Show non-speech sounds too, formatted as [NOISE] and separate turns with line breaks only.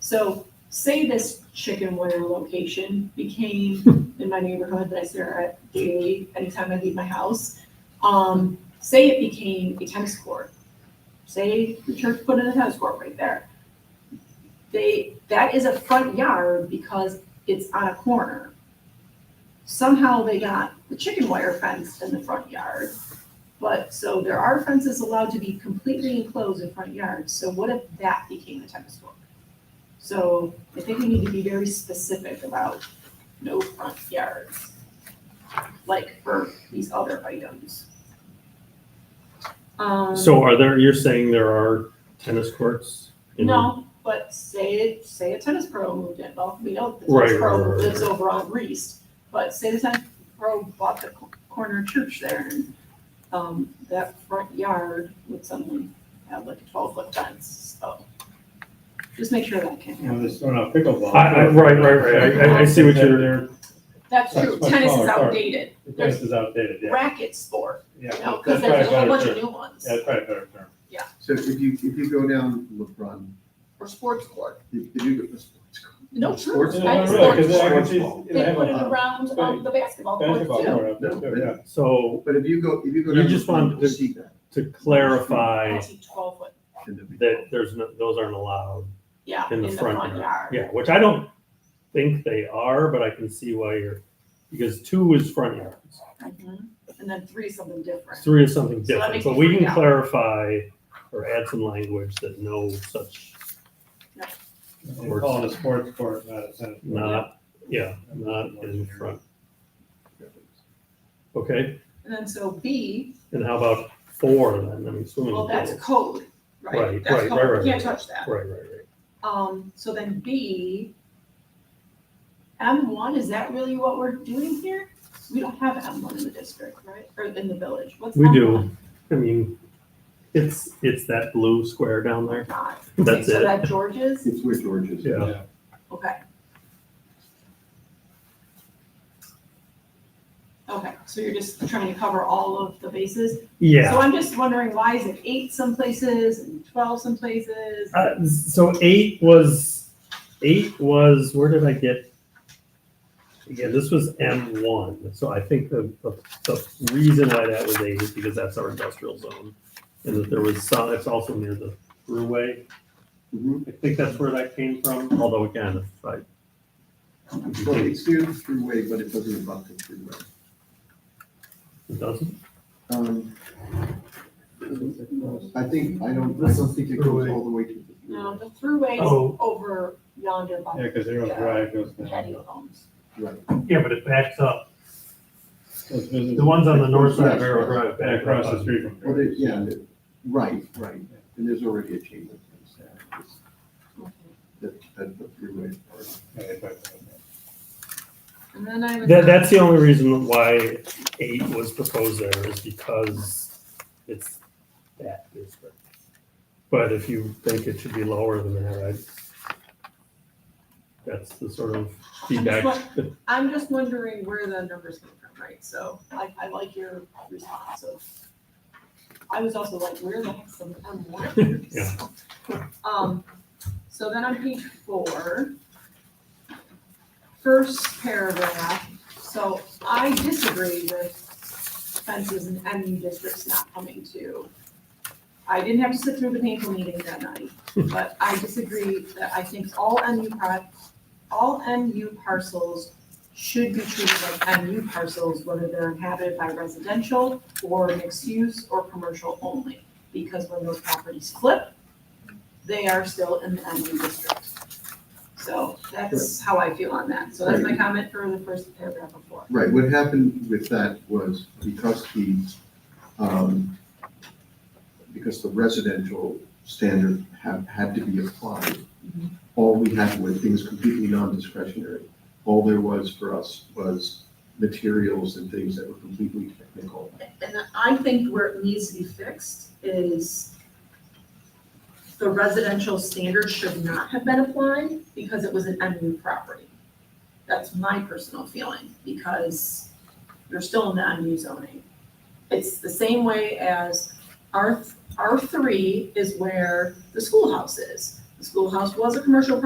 So say this chicken wire location became in my neighborhood that I stare at daily anytime I leave my house. Um, say it became a tennis court. Say the church put in a tennis court right there. They, that is a front yard because it's on a corner. Somehow they got the chicken wire fence in the front yard. But, so there are fences allowed to be completely enclosed in front yards, so what if that became a tennis court? So I think we need to be very specific about no front yards. Like for these other items. Um,
So are there, you're saying there are tennis courts? in-
No, but say, say a tennis pro moved in, well, we know the
Right,
tennis
right,
pro
right,
lives
right.
over on Reese, but say the tennis pro bought the co- corner church there and, um, that front yard would suddenly have like a twelve foot fence, so. Just make sure that can't
You know,
happen.
this one on pickleball.
I, I, right, right, right, I- I, I see what you're,
That's true,
That's much
tennis is
smaller, sorry.
outdated,
The place is outdated, yeah.
racket sport,
Yeah,
you know,
that's
cause
probably
there's
a
a whole
better
bunch of
term.
new ones,
Yeah, that's probably a better term.
So if you, if you go down LeBron,
or sports court,
if you do go to sports court.
no, true,
Sports
Yeah,
I
no,
had
really, 'cause
sports
I
court.
can see, you know,
They
have
put it
a
around, um, the basketball court
basketball
too.
court up there
No,
too, yeah.
so
But if you go, if you go
You
down.
just
LeBron,
wanted
you'll
to-
See that.
to clarify
I see twelve foot,
in the-
that there's no, those aren't allowed.
yeah,
In the front yard.
yard.
Yeah, which I don't think they are, but I can see why you're, because two is front yards.
Mhm. And then three is something different.
Three is something
So that
different,
makes
but
it
we
three
can
now.
clarify or add some language that no such,
They call it a sports court, not a tennis. court.
not, yeah, not in front, okay?
And then so B,
And how about four then, I mean, swimming
well,
pools?
that's code, right?
Mm-hmm. Right,
That's
right,
code.
right, right,
Can't
right.
touch that.
Right, right, right.
Um, so then B, M one, is that really what we're doing here? We don't have M one in the district, right? Or in the village, what's
We do.
M1?
I mean, it's, it's that blue square
[LAUGHS]
down there.
God. Okay,
That's
So
it.
that George's,
It's where George is.
Yeah.
okay. Okay, so you're just trying to cover all of the bases? So
Yeah.
I'm just wondering, why is it eight some places and twelve some places?
Uh, so eight was, eight was, where did I get? Again, this was M one, so I think the, the, the reason why that was eight is because that's our industrial zone. And that there was some, it's also near the thruway.
Mhm.
I think that's where that came from, although again, if I.
Well, it's near the thruway, but it doesn't abut the thruway.
It doesn't?
Um, I think, I don't, I don't think it goes all the way to the
No,
thruway.
the throughway's
Oh.
over yonder
Yeah,
by
because everyone's drive goes
the
down.
patio homes.
Right.
Yeah, but it backs up.
Those businesses-
The ones on the north side of
Yeah.
Arrow Drive
And
back
across the street from.
Well, they- yeah, they- right, right. And there's already a chain link fence there. It's-
Okay.
That, that the thruway part.
Yeah, they put it up
And then I would.
That, that's the only reason why eight was proposed there is because it's that district. But if you think it should be lower than that, I, that's the sort of [LAUGHS] feedback.
I'm just wondering where the numbers came from, right? So I, I like your response of. I was also like, where the heck's the M one?
Yeah.
[LAUGHS] Um, so then on page four, first paragraph, so I disagree with fences in MU districts not coming to. I didn't have to sit through the painful meeting that night, but I disagree that I think all MU pro- all MU parcels should be treated like MU parcels, whether they're inhabited by residential or mixed use or commercial only. Because when those properties flip, they are still in the MU district. So that's how I feel on that. So that's my comment for the first paragraph of four.
Right, what happened with that was because the, um, because the residential standard had, had to be applied,
Mhm.
all we had were things completely non-discretionary. All there was for us was materials and things that were completely technical.
And I think where it needs to be fixed is the residential standard should not have been applied because it was an MU property.
That's my personal feeling, because you're still in the MU zoning. It's the same way as R, R three is where the schoolhouse is. The schoolhouse was a commercial property.